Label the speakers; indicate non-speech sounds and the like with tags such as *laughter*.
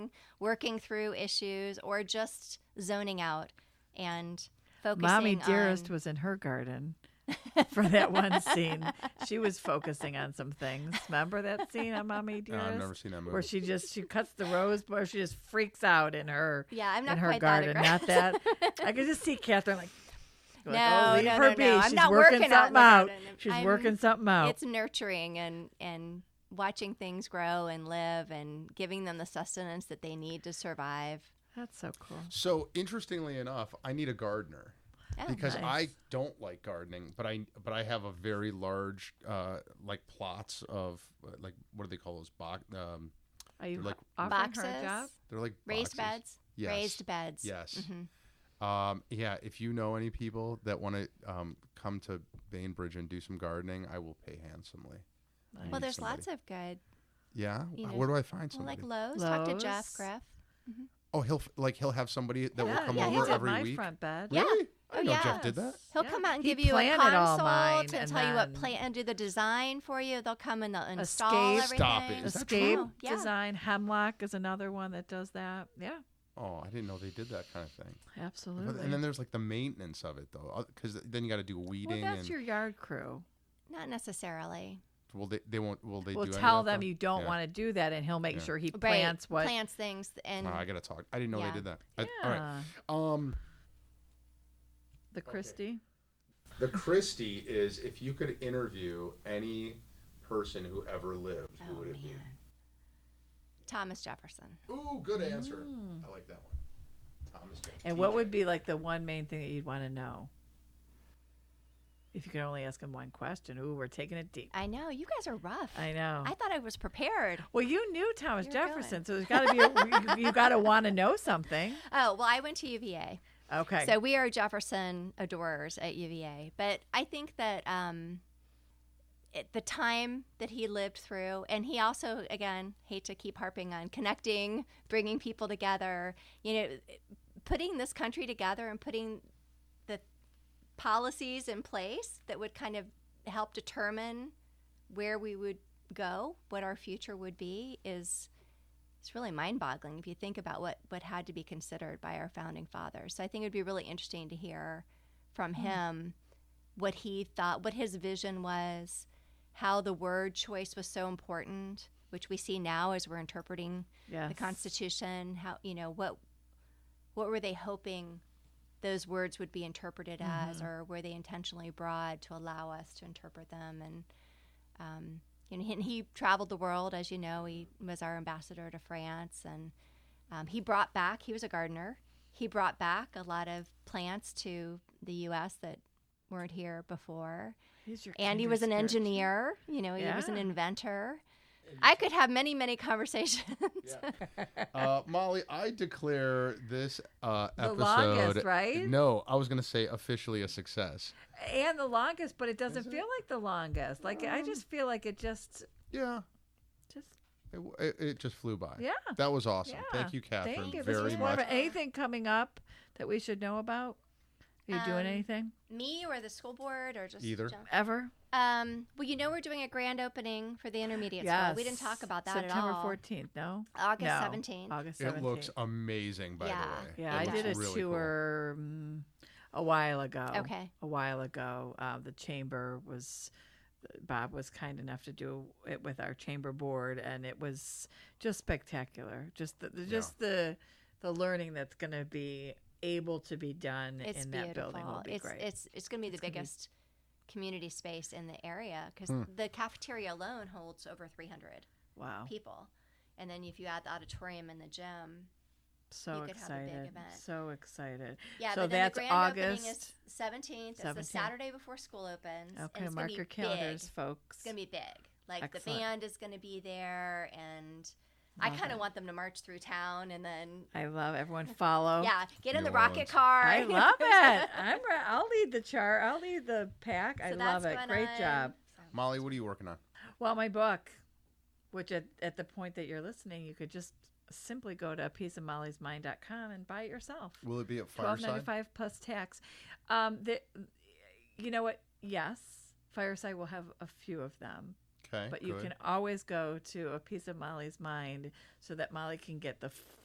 Speaker 1: working through issues, or just zoning out and focusing
Speaker 2: Mommy Dearest
Speaker 1: on
Speaker 2: was in her garden *laughs* for that one scene. She was focusing on some things. Remember that scene on Mommy
Speaker 3: No,
Speaker 2: Dearest?
Speaker 3: *laughs* I've never seen that movie.
Speaker 2: where she just she cuts the rose bush, she just freaks out in her
Speaker 1: Yeah, I'm not
Speaker 2: in her
Speaker 1: quite
Speaker 2: garden.
Speaker 1: that aggressive. *laughs*
Speaker 2: Not that I could just see Catherine like, like,
Speaker 1: No,
Speaker 2: oh, leave
Speaker 1: no,
Speaker 2: her
Speaker 1: no,
Speaker 2: be.
Speaker 1: no. I'm
Speaker 2: She's
Speaker 1: not
Speaker 2: working,
Speaker 1: working out in
Speaker 2: something
Speaker 1: the
Speaker 2: out.
Speaker 1: garden.
Speaker 2: She's
Speaker 1: I'm-
Speaker 2: working something
Speaker 1: *laughs*
Speaker 2: out.
Speaker 1: it's nurturing and and watching things grow and live and giving them the sustenance that they need to survive.
Speaker 2: That's so cool.
Speaker 3: So interestingly enough, I need a gardener
Speaker 1: Oh,
Speaker 3: because
Speaker 2: nice.
Speaker 3: I don't like gardening, but I but I have a very large uh, like plots of uh, like what do they call those box? Um,
Speaker 2: Are you
Speaker 3: They're like-
Speaker 2: offering
Speaker 1: boxes,
Speaker 2: her a job?
Speaker 3: they're like
Speaker 1: raised
Speaker 3: boxes.
Speaker 1: beds,
Speaker 3: Yes.
Speaker 1: raised beds.
Speaker 3: Yes.
Speaker 1: Mhm.
Speaker 3: Um, yeah. If you know any people that want to um, come to Bainbridge and do some gardening, I will pay handsomely. I
Speaker 2: Nice.
Speaker 1: Well,
Speaker 3: need
Speaker 1: there's
Speaker 3: somebody.
Speaker 1: lots of good.
Speaker 3: Yeah.
Speaker 1: you know,
Speaker 3: Where do I find
Speaker 1: Well,
Speaker 3: somebody?
Speaker 1: like Lowe's, talk to Jeff
Speaker 2: Lowe's.
Speaker 1: Greff.
Speaker 3: oh, he'll f- like he'll have somebody that will
Speaker 2: yeah,
Speaker 3: come
Speaker 2: yeah, he
Speaker 3: over
Speaker 2: did
Speaker 3: every
Speaker 2: my
Speaker 3: week.
Speaker 2: front bed.
Speaker 1: Yeah.
Speaker 3: Really? I
Speaker 1: Oh,
Speaker 3: didn't know Jeff
Speaker 1: yeah.
Speaker 3: did that.
Speaker 1: He'll
Speaker 2: Yeah.
Speaker 1: come out and
Speaker 2: He
Speaker 1: give you a
Speaker 2: planted all
Speaker 1: consult
Speaker 2: mine
Speaker 1: to
Speaker 2: and
Speaker 1: tell you what
Speaker 2: then-
Speaker 1: plant and do the design for you. They'll come and they'll install
Speaker 2: Escape.
Speaker 3: Stop
Speaker 1: everything.
Speaker 3: it. Is that
Speaker 2: Escape
Speaker 1: true? Yeah.
Speaker 2: design hemlock is another one that does that. Yeah,
Speaker 3: Oh, I didn't know they did that kind of thing. But-
Speaker 2: absolutely.
Speaker 3: and then there's like the maintenance of it though, because then you got to do
Speaker 2: well,
Speaker 3: weeding
Speaker 2: that's
Speaker 3: and
Speaker 2: your yard crew.
Speaker 1: Not necessarily.
Speaker 3: will they, they won't will they
Speaker 2: We'll
Speaker 3: do any
Speaker 2: tell
Speaker 3: of that,
Speaker 2: them
Speaker 3: though?
Speaker 2: you don't
Speaker 3: Yeah.
Speaker 2: want to do that, and he'll make
Speaker 3: Yeah.
Speaker 2: sure he
Speaker 1: Right.
Speaker 2: plants what.
Speaker 1: Plants things and
Speaker 3: Wow, Oh, I gotta talk. I didn't know
Speaker 1: Yeah.
Speaker 3: they did that. I-
Speaker 2: yeah,
Speaker 3: all right. Um,
Speaker 2: the Christie.
Speaker 3: the Christie is if you could interview any person who ever lived, who
Speaker 1: Oh,
Speaker 3: would it
Speaker 1: man. Thomas Jefferson.
Speaker 3: be? Ooh, good answer. I like that one. Thomas. Jefferson.
Speaker 2: Mm. And what would be like the one main thing that you'd want to know? If you could only ask him one question. Ooh, we're taking it deep.
Speaker 1: I know you guys are rough.
Speaker 2: I know.
Speaker 1: I thought I was prepared.
Speaker 2: well, you knew Thomas
Speaker 1: You're
Speaker 2: Jefferson, so there's got to be a, you, you got to want to know
Speaker 3: *laughs*
Speaker 2: something.
Speaker 1: Oh well, I went to UVA.
Speaker 2: Okay.
Speaker 1: So we are Jefferson adorers at UVA, but I think that um, it, the time that he lived through, and he also, again, hate to keep harping on connecting, bringing people together, you know, putting this country together and putting the policies in place that would kind of help determine where we would go, what our future would be, is it's really mind-boggling if you think about what what had to be considered by our founding fathers. So I think it would be really interesting to hear from him what he thought, what his vision was, how the word choice was so important, which we see now as we're interpreting
Speaker 2: yes.
Speaker 1: the Constitution. How you know what what were they hoping those words would be interpreted
Speaker 2: Mm-hmm.
Speaker 1: as, or were they intentionally broad to allow us to interpret them? And um, you know, and he traveled the world, as you know. He was our ambassador to France, and um, he brought back. He was a gardener. He brought back a lot of plants to the U.S. that weren't here before.
Speaker 2: He's your
Speaker 1: And he
Speaker 2: kindred
Speaker 1: was an
Speaker 2: spirit.
Speaker 1: engineer. You know, he was an
Speaker 2: Yeah.
Speaker 1: inventor. I could have many, many conversations. *laughs*
Speaker 2: *laughs*
Speaker 3: uh, Molly, I declare this uh,
Speaker 2: The
Speaker 3: episode.
Speaker 2: longest, right?
Speaker 3: No, I was gonna say officially a success.
Speaker 2: And the longest, but it doesn't feel like the longest. Like I just feel like it just,
Speaker 3: Yeah,
Speaker 2: just
Speaker 3: it, w- it, it just flew by.
Speaker 2: Yeah.
Speaker 3: That was awesome.
Speaker 2: Yeah.
Speaker 3: Thank you, Catherine,
Speaker 2: Thank you. This
Speaker 3: very
Speaker 2: was
Speaker 3: much.
Speaker 2: wonderful. Anything coming up that we should know about? Are you doing
Speaker 1: Um,
Speaker 2: anything
Speaker 1: Me or the school board or just
Speaker 3: Either.
Speaker 1: Jeff?
Speaker 2: ever?
Speaker 1: Um, well, you know we're doing a grand opening for the intermediate school. We didn't talk about that
Speaker 2: September
Speaker 1: at all.
Speaker 2: 14th, no?
Speaker 1: August
Speaker 2: No.
Speaker 1: 17th.
Speaker 2: August 17th.
Speaker 3: It looks amazing, by
Speaker 1: Yeah.
Speaker 3: the way.
Speaker 2: Yeah,
Speaker 3: It
Speaker 2: I
Speaker 3: looks
Speaker 2: did a
Speaker 3: really cool.
Speaker 2: tour mm, a while ago.
Speaker 1: Okay.
Speaker 2: A while ago. Uh, the chamber was, Bob was kind enough to do it with our chamber board, and it was just spectacular. Just the, the just the the learning that's going to be able to be done
Speaker 1: It's
Speaker 2: in that
Speaker 1: beautiful.
Speaker 2: building will be
Speaker 1: it's,
Speaker 2: great.
Speaker 1: it's it's going to be the
Speaker 2: gonna be-
Speaker 1: biggest community space in the area because the cafeteria alone holds over 300
Speaker 2: wow.
Speaker 1: people, and then if you add the auditorium and the gym,
Speaker 2: So
Speaker 1: could have a big
Speaker 2: excited.
Speaker 1: event.
Speaker 2: So excited.
Speaker 1: yeah.
Speaker 2: so
Speaker 1: but then
Speaker 2: that's
Speaker 1: the grand
Speaker 2: August.
Speaker 1: opening is 17th. It's the
Speaker 2: 17th.
Speaker 1: Saturday before school opens. and
Speaker 2: okay,
Speaker 1: it's gonna
Speaker 2: mark
Speaker 1: be
Speaker 2: your calendars,
Speaker 1: big.
Speaker 2: folks.
Speaker 1: It's gonna be big. Like
Speaker 2: Excellent.
Speaker 1: the band is gonna be there, and I
Speaker 2: Love
Speaker 1: kind
Speaker 2: it.
Speaker 1: of want them to march through town and then
Speaker 2: I love
Speaker 1: *laughs*
Speaker 2: everyone follow.
Speaker 1: yeah, get in
Speaker 3: New
Speaker 1: the rocket
Speaker 3: Orleans.
Speaker 1: car.
Speaker 2: I love
Speaker 1: *laughs*
Speaker 2: it. I'm re- I'll lead the chart. I'll lead the pack. I
Speaker 1: So
Speaker 2: love
Speaker 1: that's
Speaker 2: it.
Speaker 1: going
Speaker 2: Great
Speaker 1: on.
Speaker 2: job.
Speaker 3: Molly, what are you working on?
Speaker 2: Well, my book, which at, at the point that you're listening, you could just simply go to a piece of Molly's mind.com and buy it yourself.
Speaker 3: Will it be at
Speaker 2: Twelve ninety
Speaker 3: Fireside?
Speaker 2: five plus tax. Um, the, you know what? Yes, Fireside will have a few of them,
Speaker 3: Okay.
Speaker 2: but you
Speaker 3: good.
Speaker 2: can always go to a piece of Molly's mind so that Molly can get the